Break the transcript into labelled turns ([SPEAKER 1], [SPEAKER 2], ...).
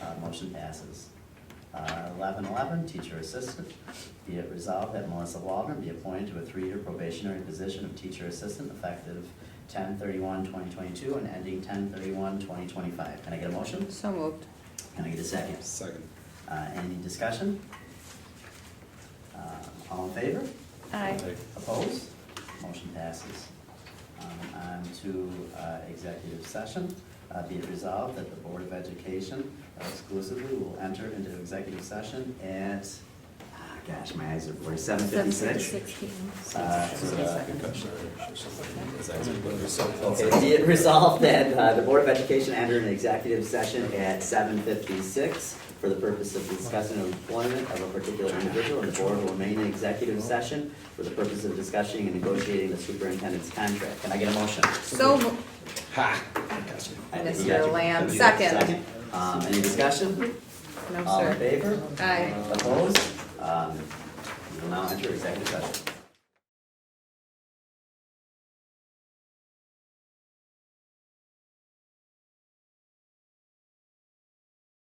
[SPEAKER 1] Uh, Motion passes. Uh, Eleven eleven, teacher assistant. Be it resolved that Melissa Waldron be appointed to a three-year probationary position of teacher assistant effective 2022 and ending 2025. Can I get a motion?
[SPEAKER 2] So moved.
[SPEAKER 1] Can I get a second?
[SPEAKER 3] Second.
[SPEAKER 1] Uh, Any discussion? Uh, All in favor?
[SPEAKER 2] Aye.
[SPEAKER 1] Opposed? Motion passes. Um, On to uh, executive session. Uh, Be it resolved that the Board of Education exclusively will enter into executive session at, ah, gosh, my eyes are blurry, seven fifty-six. Uh, Okay, be it resolved that uh, the Board of Education enter an executive session at seven fifty-six for the purpose of discussing employment of a particular individual, and the board will remain in executive session for the purpose of discussing and negotiating the superintendent's contract. Can I get a motion?
[SPEAKER 2] So moved.
[SPEAKER 3] Ha! Gotcha.
[SPEAKER 1] I think we got
[SPEAKER 2] Mr.
[SPEAKER 1] you.
[SPEAKER 2] Lamb, second.
[SPEAKER 1] Um, any discussion?
[SPEAKER 2] No,
[SPEAKER 1] All in
[SPEAKER 2] sir.
[SPEAKER 1] favor? Um,
[SPEAKER 2] Aye.
[SPEAKER 1] Opposed? Um, we will now enter executive session.